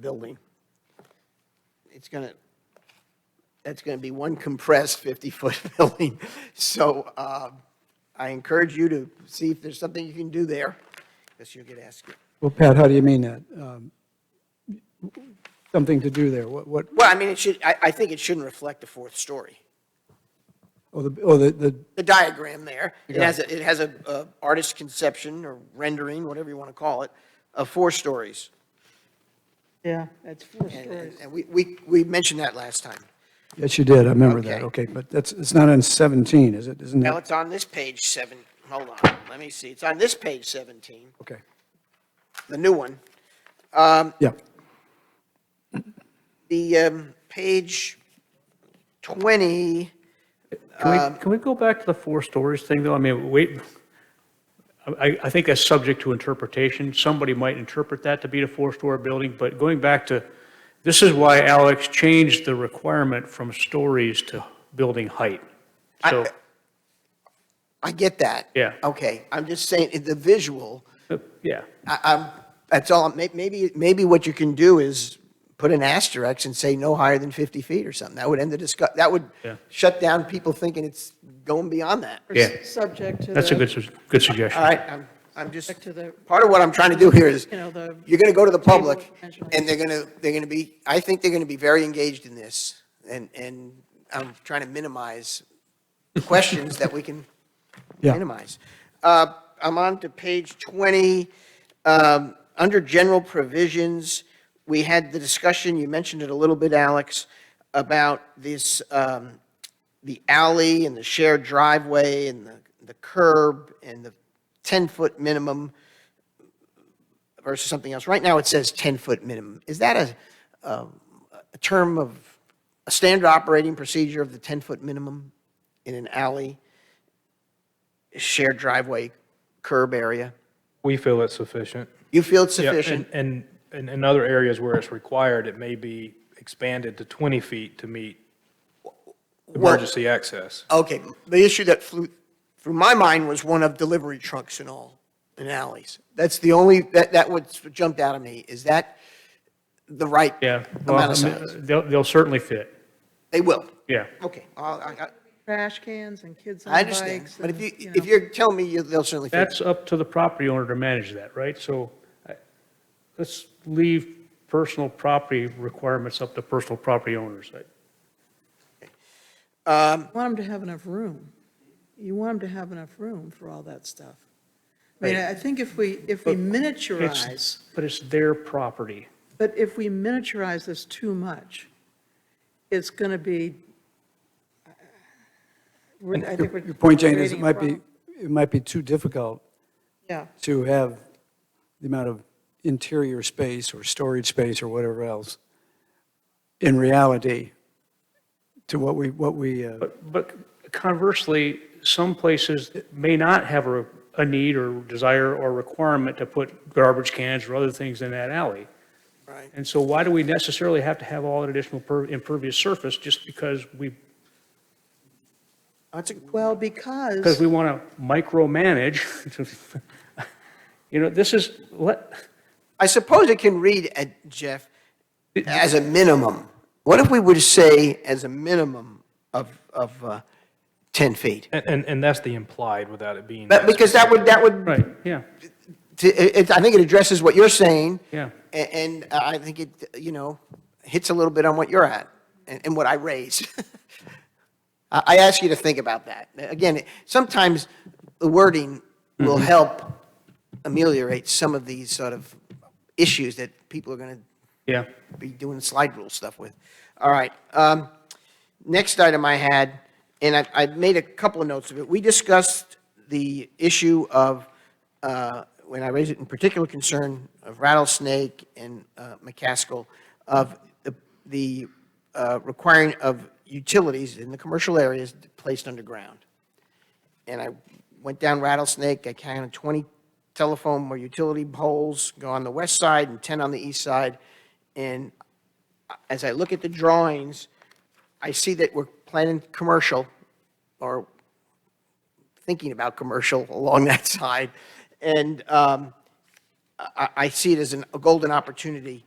building. It's going to, that's going to be one compressed 50-foot building. So uh, I encourage you to see if there's something you can do there, because you'll get asked. it. Well, Pat, how do you mean that? Um, Something to do there? What, what, Well, I mean, it should, I, I think it shouldn't reflect a fourth story. oh, the, oh, the, the The diagram there, it has, a- it has a a artist's conception or rendering, whatever you want to call it, of four stories. Yeah, that's four And- stories. And and we, we, we mentioned that last time. yes, you did, I remember that, Okay. okay, but that's, it's not on 17, is it? Isn't Well, it? it's on this page seven, hold on, let me see, it's on this page 17, Okay, the new one. yeah, The um, page 20, Um, Can we, can we go back to the four stories thing, though? I mean, wait, I, I think that's subject to interpretation. Somebody might interpret that to be a four-story building, but going back to, this is why Alex changed the requirement from stories to building height. So, I- I get that. Yeah. Okay, I'm just saying, it- the visual, yeah, I, uh, I'm, that's all, May- maybe, maybe what you can do is put an asterisk and say no higher than 50 feet or something. That would end the discuss, that would Yeah. shut down people thinking it's going beyond that. yeah, Subject to that's a the, good, su- good All suggestion. right, I'm, I'm just, Back to the- part of what I'm trying to do here is, You know, the you're going to go to the table public, dimensional. and they're going to, they're going to be, I think they're going to be very engaged in this, and, and I'm trying to minimize questions that we can Yeah. minimize. Uh, I'm on to page 20. Um, Under general provisions, we had the discussion, you mentioned it a little bit, Alex, about this, um, the alley and the shared driveway and the the curb and the 10-foot minimum versus something else. Right now, it says 10-foot minimum. Is that a, um, a term of, a standard operating procedure of the 10-foot minimum in an alley, shared driveway, curb area? We feel it's sufficient. You feel it's Yeah, and- sufficient? And, and in other areas where it's required, it may be expanded to 20 feet to meet Well- emergency access. Okay, the issue that flew through my mind was one of delivery trucks and all, and alleys. That's the only, that, that what jumped out at me. Is that the right Yeah, amount well, of size? they'll, they'll certainly fit, They will. yeah. Okay, I'll- I, I- trash cans and kids on I bikes. understand. But if and, you, know. if you're telling me you- they'll certainly fit, That's up to the property owner to manage that, right? So I- let's leave personal property requirements up to personal property owners. I- You want them to have enough room. You want them to have enough room for all that stuff. I mean, I think if we, if we miniaturize, It's- But it's their property. but if we miniaturize this too much, it's going to be, we're- I think we're. your point, Jane, is creating it a might be, problem. it might be too difficult Yeah, to have the amount of interior space or storage space or whatever else in reality to what we, what we, uh, But, but conversely, some places may not have a, a need or desire or requirement to put garbage cans or other things in that alley. right? And so why do we necessarily have to have all that additional per- impervious surface just because we, That's a- well, because because, we want to micromanage? You know, this is, let, I suppose it can read, uh, Jeff, as a minimum. What if we were to say as a minimum of, of uh, 10 feet? And, and, and that's the implied without it being. But because that would, that would, right, yeah, t- it, it- I think it addresses what you're saying. Yeah. a- And I think it, you know, hits a little bit on what you're at and, and what I raised. I, I ask you to think about that. Again, sometimes the wording will help ameliorate some of these sort of issues that people are going to yeah. be doing slide rule stuff with. All right. um, Next item I had, and I, I made a couple of notes of it. We discussed the issue of, uh, when I raised it in particular concern of rattlesnake and uh, McCaskill, of the, the uh, requiring of utilities in the commercial areas placed underground and I went down Rattlesnake, I counted 20 telephone or utility poles, go on the west side and 10 on the east side. And as I look at the drawings, I see that we're planning commercial or thinking about commercial along that side. And um, I, I see it as an- a golden opportunity